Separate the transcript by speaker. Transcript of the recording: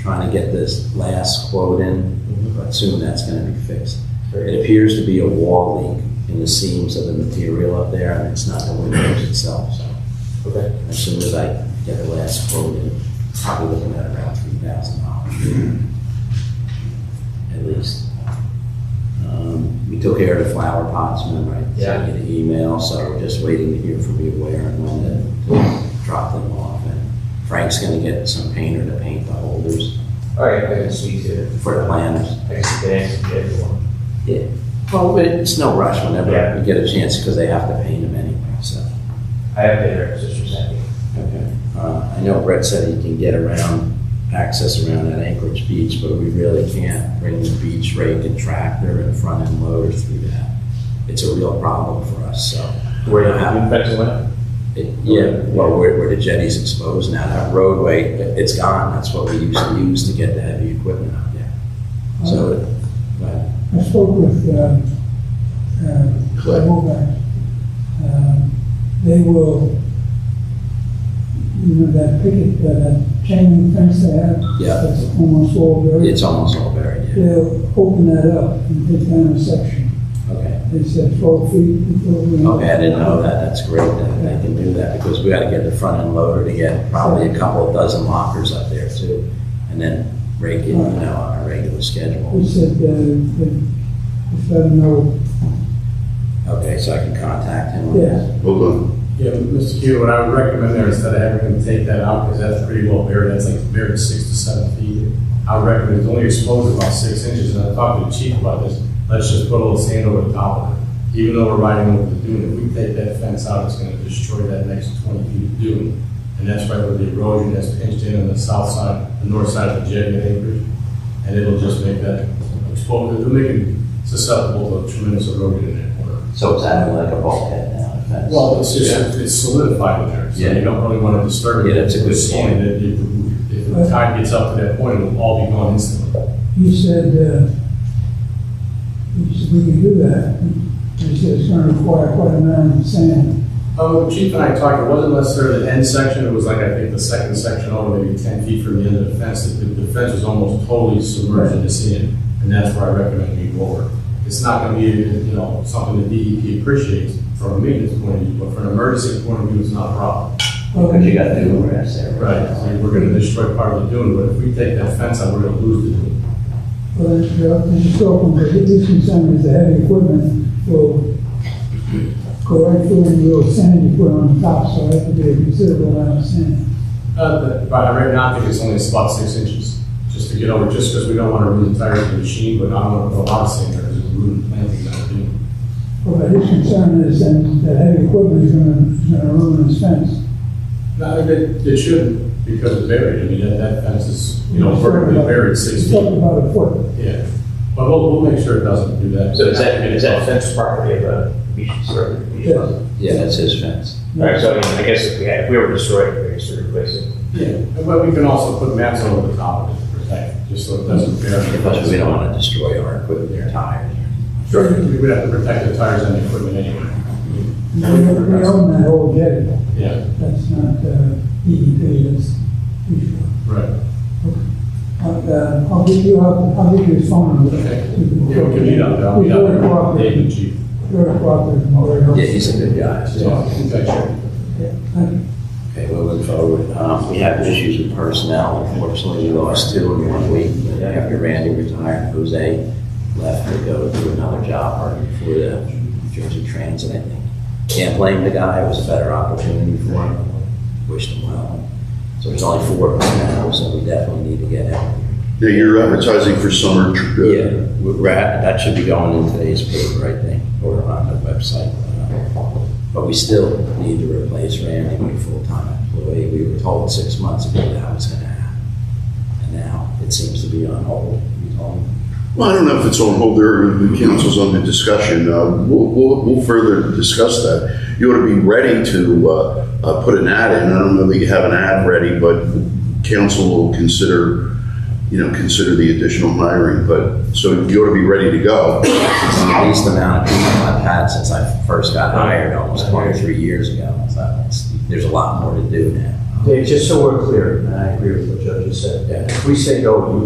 Speaker 1: trying to get this last quote
Speaker 2: Mm-hmm.
Speaker 1: in, I assume that's gonna be fixed.
Speaker 2: Great.
Speaker 1: It appears to be a wall leak in the seams of the material up there, and it's not the windows itself, so.
Speaker 2: Okay.
Speaker 1: As soon as I get the last quote in, probably looking at around three thousand dollars. At least. Um, We took care of the flower pots, remember? I
Speaker 2: Yeah.
Speaker 1: sent you the email, so we're just waiting to hear from you where and when to- to drop them off. And Frank's gonna get some painter to paint the holders
Speaker 2: All right, I can speak to,
Speaker 1: for the planters.
Speaker 2: I can speak to everyone.
Speaker 1: Well, it's no rush whenever
Speaker 2: Yeah.
Speaker 1: we get a chance, because they have to paint them anyway, so.
Speaker 2: I have their sisters happy.
Speaker 1: Okay. Uh, I know Brett said he can get around, access around that Anchorage beach, but we really can't bring the beach rake and tractor and front end loader through that. It's a real problem for us, so.
Speaker 2: Where you have infected one?
Speaker 1: It- Yeah, well, where, where the jetty's exposed now, that roadway, it- it's gone, that's what we used to use to get the heavy equipment out there. So, but,
Speaker 3: I spoke with, um, uh,
Speaker 1: Cliff.
Speaker 3: Mobac. Um, They will, you know, that picket, uh, that chain link fence they have.
Speaker 1: Yeah.
Speaker 3: That's almost all buried.
Speaker 1: it's almost all buried, yeah,
Speaker 3: They'll open that up and take down a section.
Speaker 1: okay.
Speaker 3: They said twelve feet. until we-
Speaker 1: Okay, I didn't know that, that's great that they can do that, because we gotta get the front end loader to get probably a couple of dozen lockers up there too, and then rake it, you know, on a regular
Speaker 3: They
Speaker 1: schedule.
Speaker 3: said, uh, that if I know,
Speaker 1: Okay, so I can contact him on
Speaker 3: yeah,
Speaker 1: that?
Speaker 4: Hold on.
Speaker 5: Yeah, Mr. Q, what I would recommend there, instead of having them take that out, because that's pretty well buried, that's like buried six to seven feet. I would recommend, it's only exposed about six inches, and I talked to the chief about this, let's just put a little sand over the top of it. Even though we're riding over the dune, if we take that fence out, it's gonna destroy that next twenty feet of dune. And that's right where the erosion has pinched in on the south side, the north side of the jetty at Anchorage. And it'll just make that exposed, it'll make it susceptible to tremendous erosion in that corner.
Speaker 1: So it's acting like a bulkhead now, if that's.
Speaker 5: Well, it's just, it's solidified in there, so
Speaker 1: Yeah.
Speaker 5: you don't really want to disturb it.
Speaker 1: Yeah, that's a good
Speaker 5: It's
Speaker 1: point.
Speaker 5: sand, If, if- if the tide gets up to that point, it'll all be gone instantly.
Speaker 3: he said, uh, he said, we can do that. He said, it's gonna require quite a amount of sand.
Speaker 5: Oh, the Chief and I talked, it wasn't necessarily the end section, it was like, I think, the second section over, maybe ten feet from the end of the fence. The, the fence was almost totally submerged in the sand, and that's where I recommend we go over. It's not gonna be, you know, something that DEP appreciates from a maintenance point of view, but from an emergency point of view, it's not a problem.
Speaker 1: Because you got the bluegrass there.
Speaker 5: Right, I mean, we're gonna destroy part of the dune, but if we take that fence out, we're gonna lose the dune.
Speaker 3: Well, just talking, but his concern is the heavy equipment will go right through and will sand you put on top, so that could be a considerable amount of sand.
Speaker 5: Uh, but by right now, I think it's only about six inches, just to get over, just because we don't want to ruin the tires of the machine, but I don't want to put a lot of sand there, because it's ruined planting that would be.
Speaker 3: But his concern is then the heavy equipment is gonna, is gonna ruin his fence.
Speaker 5: No, it, it shouldn't, because it's buried, I mean, that, that fence is, you know, vertically buried six
Speaker 3: He's talking
Speaker 5: feet,
Speaker 3: about a foot.
Speaker 5: yeah. But we'll, we'll make sure it doesn't do that.
Speaker 2: So is that, is that fence property of the beach service?
Speaker 3: Yes.
Speaker 2: All
Speaker 1: Yeah, that's his fence.
Speaker 2: right, so I mean, I guess if we had, if we were destroying it, we could sort of replace it.
Speaker 5: Yeah, and but we can also put mats over the top of it to protect, it, just so it doesn't bear.
Speaker 1: Plus, we don't want to destroy our equipment, their tires.
Speaker 5: Sure, we would have to protect the tires and the equipment anyway,
Speaker 3: We we own that whole jetty,
Speaker 5: yeah,
Speaker 3: that's not, uh, DEP, that's,
Speaker 5: right.
Speaker 3: but, uh, I'll give you, I'll, I'll give you his phone number.
Speaker 5: Okay. Yeah, Mm-hmm. we can meet up, there. I'll meet
Speaker 3: He's
Speaker 5: up
Speaker 3: very
Speaker 5: there, Dave
Speaker 3: cooperative,
Speaker 5: and Chief.
Speaker 3: very cooperative, very helpful.
Speaker 1: Yeah, he's a good guy, so.
Speaker 5: Yeah, in fact, sure.
Speaker 3: Yeah, thank you.
Speaker 1: Okay, moving forward, um, we have issues with personnel, unfortunately, we lost two in one week. After Randy retired, Jose left to go do another job working for the New Jersey Transit, I think. Can't blame the guy, it was a better opportunity for him, wished him well. So there's only four personnel, so we definitely need to get out.
Speaker 4: Yeah, you're advertising for summer. tr- uh,
Speaker 1: Yeah, we're at, that should be going in today's paper, I think, or on the website. But we still need to replace Randy with a full-time employee. We were told six months ago that was gonna happen. And now it seems to be on hold. We told them,
Speaker 4: Well, I don't know if it's on hold there, or the council's under discussion. Uh, We'll, we'll, we'll further discuss that. You ought to be ready to uh, uh, put an ad in. I don't know that you have an ad ready, but council will consider, you know, consider the additional hiring, but, so you ought to be ready to go.
Speaker 1: It's the least amount of people I've had since I first got hired almost twenty-three years ago. So it's- there's a lot more to do now. Dave, just so we're clear, and I agree with what Joe just said, if we say go, you